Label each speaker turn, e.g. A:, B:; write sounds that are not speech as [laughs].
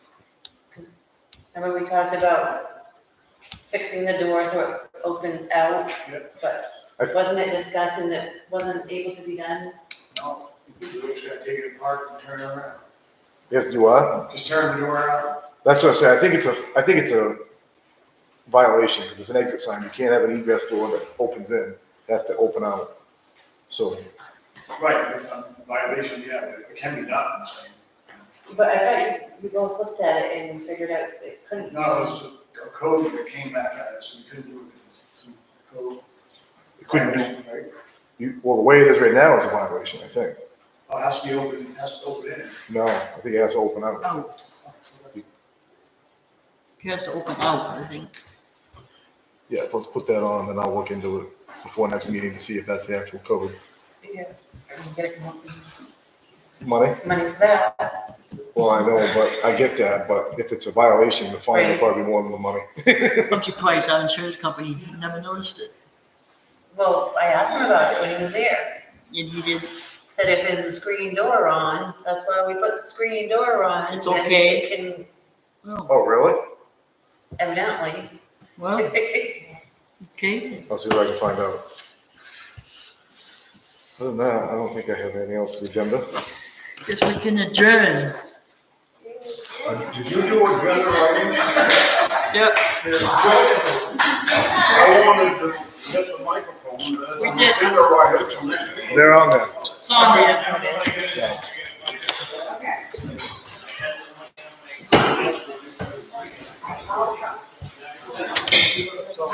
A: Remember we talked about fixing the door so it opens out? But
B: I th-
A: wasn't it discussed and it wasn't able to be done?
C: No, if you do it, you gotta take it apart and turn it around.
B: Yes, you are.
C: Just turn the door out.
B: That's what I say. I think it's a, I think it's a violation because it's an exit sign. You can't have an egress door that opens in. It has to open out. So
C: Right, it's a violation, yeah, but it can be done, I'm saying.
A: But I thought you, you both looked at it and figured out it couldn't.
C: No, it's a code that came back at us, we couldn't do it. Some code
B: it couldn't be,
C: violation, right?
B: you, well, the way it is right now is a violation, I think.
C: Oh, it has to be open, it has to open in.
B: No, I think it has to open out.
D: out. He has to open out, I think.
B: Yeah, let's put that on and I'll look into it before next meeting to see if that's the actual code.
A: Yeah, I can get it from
B: Money?
A: money for that.
B: Well, I know, but I get that, but if it's a violation, the fine will
A: Right.
B: probably be more than the money.
D: I'm surprised our insurance company never noticed it.
A: Well, I asked him about it when he was there.
D: And he did,
A: Said if there's a screen door on, that's why we put the screen door on.
D: It's
A: then
D: okay.
A: it can
D: well,
B: Oh, really?
A: evidently.
D: well,
A: [laughs]
D: okay,
B: I'll see what I can find out. Other than that, I don't think I have anything else to agenda.
D: guess we can adjourn.
C: Did you do a good writing?
D: Yep,
C: I wanted to get the microphone, but
D: We did.
C: finger writer, so next week.
B: They're on there.
D: it's on there.